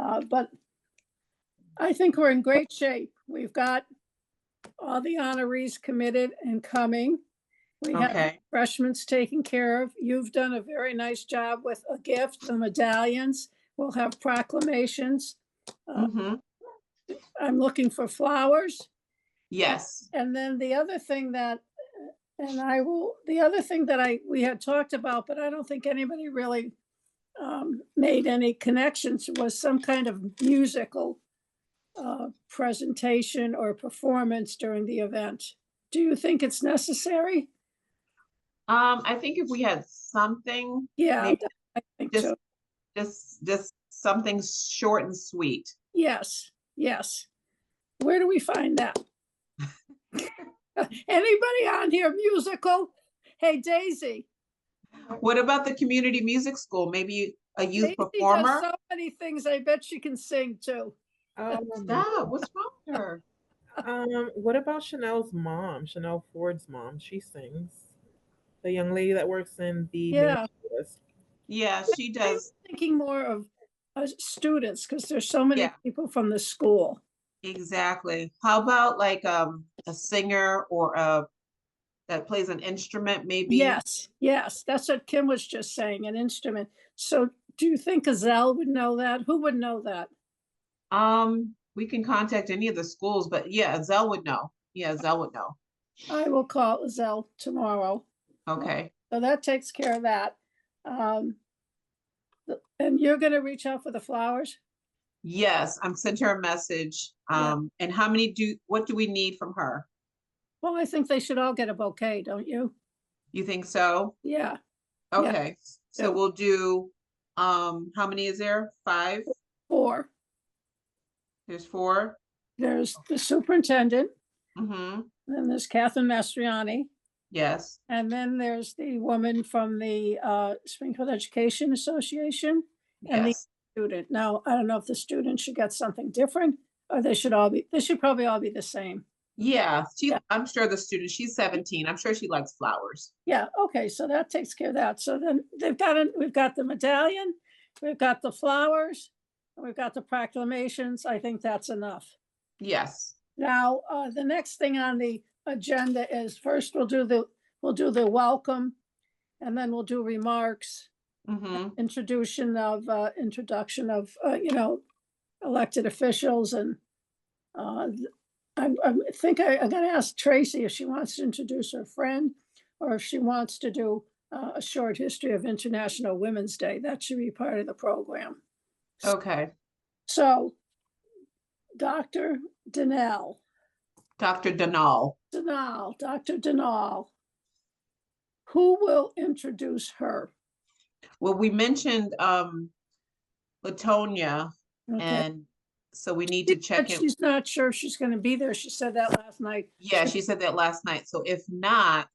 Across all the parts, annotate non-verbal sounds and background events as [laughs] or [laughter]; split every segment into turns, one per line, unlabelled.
Uh, but I think we're in great shape. We've got all the honorees committed and coming. We have
Okay,
freshmen's taken care of. You've done a very nice job with a gift, the medallions. We'll have proclamations. Uh,
hmm
I'm looking for flowers.
yes,
And then the other thing that, and I will, the other thing that I, we had talked about, but I don't think anybody really um, made any connections was some kind of musical uh, presentation or performance during the event. Do you think it's necessary?
um, I think if we had something,
Yeah,
Maybe
I think
just-
so.
just, just something short and sweet.
Yes, yes. Where do we find
[laughs]
that? [laughs] Anybody on here musical? Hey Daisy.
What about the community music school? Maybe a youth
Daisy does
performer?
So many things. I bet she can sing too.
Um,
Stop, what's wrong with her?
um, what about Chanel's mom, Chanel Ford's mom? She sings. The young lady that works in the
Yeah.
list.
Yeah, she
I
does,
was thinking more of uh, students because there's so many
Yeah.
people from the school.
exactly. How about like, um, a singer or a, that plays an instrument maybe?
Yes, yes, that's what Kim was just saying, an instrument. So do you think Gazelle would know that? Who would know that?
Um, we can contact any of the schools, but yeah, Zell would know. Yeah, Zell would know.
I will call Gazelle tomorrow.
Okay,
So that takes care of that. Um, th- And you're going to reach out for the flowers?
yes, I'm sent her a message.
Yeah.
Um, and how many do, what do we need from her?
Well, I think they should all get a bouquet, don't you?
You think so?
Yeah, Yeah.
Okay, s-
Yeah.
so we'll do, um, how many is there? Five?
or
There's four?
there's the superintendent,
Mm-hmm,
then there's Catherine Mastriani.
yes,
And then there's the woman from the uh, Springfield Education Association And the-
yes.
student. Now, I don't know if the student should get something different or they should all be, they should probably all be the same.
Yeah, she,
Yeah.
I'm sure the student, she's seventeen. I'm sure she likes flowers.
Yeah, okay, so that takes care of that. So then they've got, it- we've got the medallion, we've got the flowers, and we've got the proclamations. I think that's enough.
Yes,
Now, uh, the next thing on the agenda is first we'll do the, we'll do the welcome and then we'll do remarks.
mm-hmm,
introduction of, uh, introduction of, uh, you know, elected officials and, uh, th- I, I think I, I'm gonna ask Tracy if she wants to introduce her friend or if she wants to do uh, a short history of International Women's Day. That should be part of the program.
okay.
So, Dr. Denell,
Dr. Denal.
Denal, Dr. Denal, who will introduce her?
Well, we mentioned, um, Latonia,
Okay.
and so we need
She
to check
said
in.
She's not sure if she's gonna be there. She said that last night.
Yeah, she said that last night. So if not,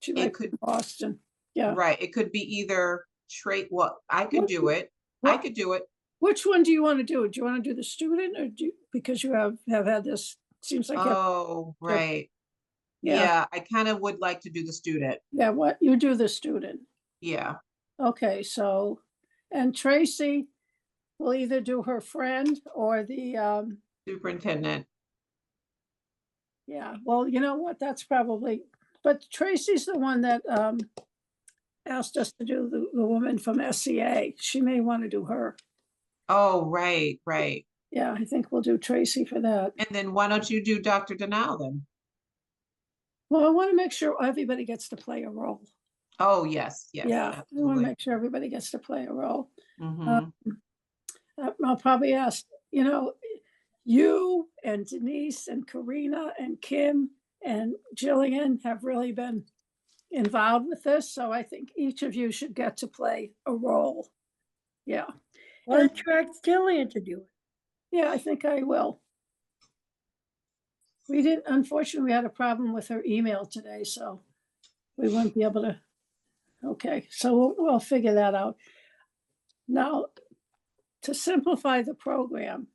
She
it
might be
could,
in Boston. yeah.
right, it could be either trait, well, I could
What-
do it. I
what-
could do it.
Which one do you want to do? Do you want to do the student or do, you- because you have, have had this, seems like, you have-
Oh, right.
yeah,
Yeah, I kind of would like to do the student.
yeah, what, you do the student.
Yeah.
Okay, so, and Tracy will either do her friend or the, um,
Superintendent.
yeah, well, you know what, that's probably, but Tracy's the one that, um, asked us to do the, the woman from SCA. She may want to do her.
Oh, right, right.
Yeah, I think we'll do Tracy for that.
And then why don't you do Dr. Denal then?
Well, I want to make sure everybody gets to play a role.
Oh, yes, yes.
Yeah, we want to
absolutely.
make sure everybody gets to play a role.
Mhm.
Uh, I'll probably ask, you know, you and Denise and Karina and Kim and Jillian have really been involved with this, so I think each of you should get to play a role. Yeah,
Well, don't you ask Jillian to do it?
yeah, I think I will. We didn't, unfortunately, we had a problem with her email today, so we wouldn't be able to. Okay, so we'll, we'll figure that out. Now, to simplify the program,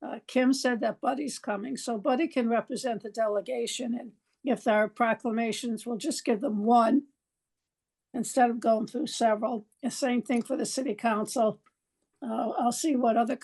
uh, Kim said that Buddy's coming, so Buddy can represent the delegation. And if there are proclamations, we'll just give them one instead of going through several. The same thing for the city council. Uh, I'll see what other